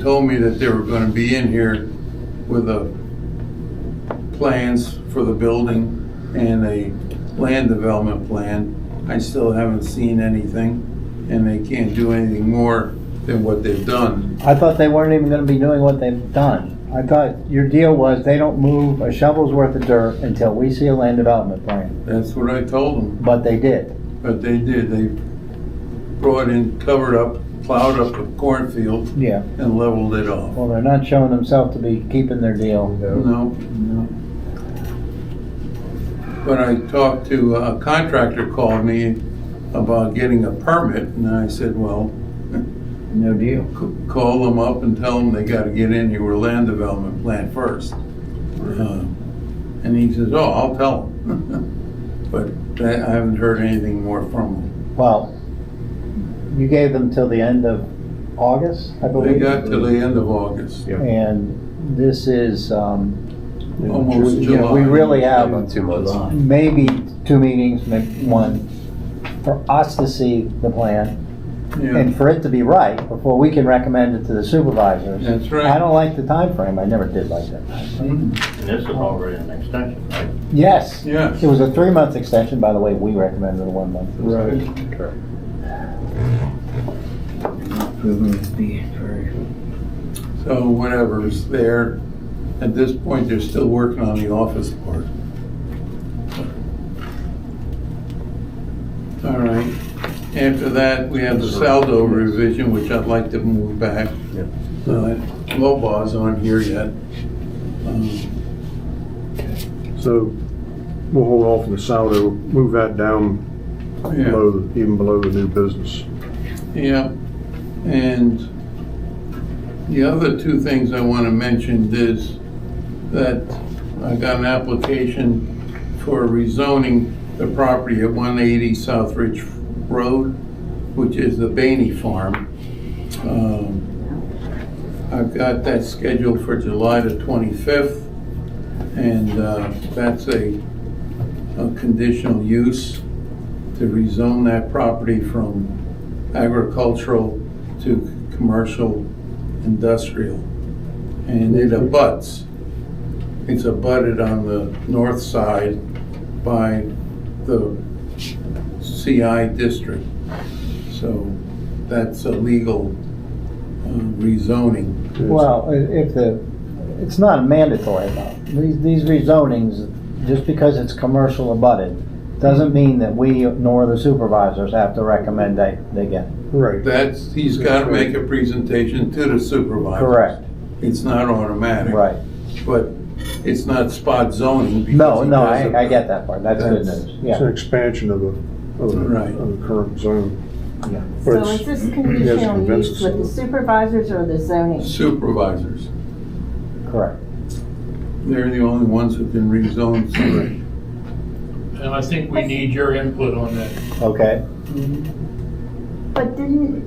told me that they were gonna be in here with the plans for the building and a land development plan. I still haven't seen anything, and they can't do anything more than what they've done. I thought they weren't even gonna be doing what they've done. I thought your deal was they don't move a shovel's worth of dirt until we see a land development plan, That's what I told them, but they did. but they did. They brought in, covered up, plowed up a cornfield Yeah. and leveled it off. Well, they're not showing themselves to be keeping their deal. No, no. When I talked to, uh, a contractor called me about getting a permit, and I said, well, No deal. c- call them up and tell them they gotta get in your land development plan first. Uh, And he says, oh, I'll tell them. But that- I haven't heard anything more from him. Well, you gave them till the end of August, I They believe? got till the end of August. And this is, um, Almost you know, we July. really have About two months. maybe two meetings, maybe one, for us to see the plan. Yeah, and for it to be right, before we can recommend it to the supervisors. That's right. I don't like the time frame. I never did like that. Mhm. And this is already an extension, right? Yes. Yeah. It was a three-month extension, by the way, we recommended a one-month. Right. So whatever's there, at this point, they're still working on the office part. All right, after that, we have the Saldo revision, which I'd like to move back. Yep. Uh, Lobaw's on here yet. Um, So we'll hold off on the saldo, move that down Yeah, below, even below the new business. yeah, and the other two things I want to mention is that I got an application for rezoning the property at 180 South Ridge Road, which is the Bainey Farm. Um, I've got that scheduled for July the 25th, and uh, that's a a conditional use to rezone that property from agricultural to commercial industrial. And it abuts it's abutted on the north side by the CI district. So that's a legal uh, rezoning. Well, i- if the, it's not mandatory though. These, these rezonings, just because it's commercial abutted, doesn't mean that we nor the supervisors have to recommend they, they get it. Right. That's, he's got to make a presentation to the supervisor. Correct, It's not automatic. right. But it's not spot zoning. because No, he no, I, I doesn't- get that part. That's good That's- news, It's an yeah. expansion of a, of Right. a, of a current zone. Yeah. Or So it's- is this you guys conditional convince use us. with the supervisors or the zoning? Supervisors. Correct. They're the only ones who can rezone something. And I think we need your input on that. Okay, But didn't...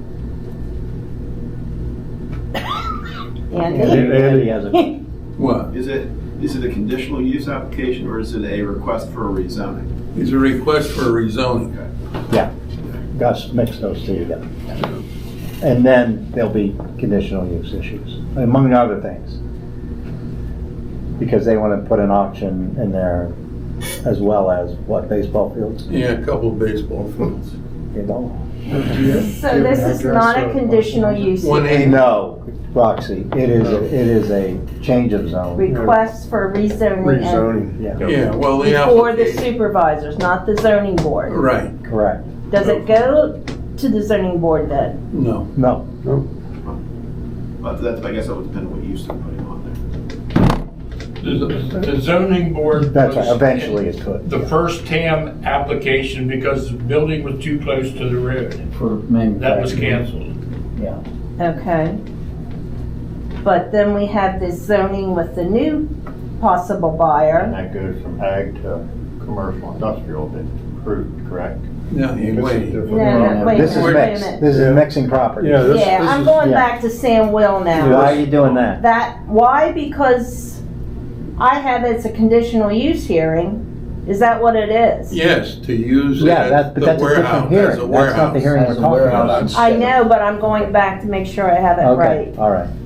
Andy- Andy? Andy has a- What? Is it, is it a conditional use application or is it a request for a rezoning? It's a request for rezoning. Yeah, Gus mixed those two together. And then there'll be conditional use issues, among other things. Because they want to put an auction in there as well as, what, baseball fields? Yeah, a couple of baseball fields. You know? So this is not a uh, conditional use, One eighty. No, Roxy, it is, a- it is a change of zone. requests for rezoning and- Rezoning. Yeah, Yeah, well, the before the application. supervisors, not the zoning board. Right, correct. Does it go to the zoning board then? no. No, But that, I guess that would depend on what use they're putting on there. The the zoning board. that's right, was eventually it could. The first TAM application because the building was too close to the road. For That was canceled. Yeah, Okay. But then we have this zoning with the new possible And buyer. that goes from ag to commercial industrial that approved, correct? No, you wait. No, no, Um, wait a this is minute, wait a mixed, minute. this is mixing properties. Yeah, this- Yeah, this I'm is- going yeah. back to Sam Will now. Why are you doing that? That, why? Because I have it's a conditional use hearing. Is that what it is? Yes, to use it Yeah, that's, as but the that's a different warehouse, as a hearing. That's not the warehouse. hearing we're talking about. I know, but I'm going back to make sure I have it Okay, right. all right.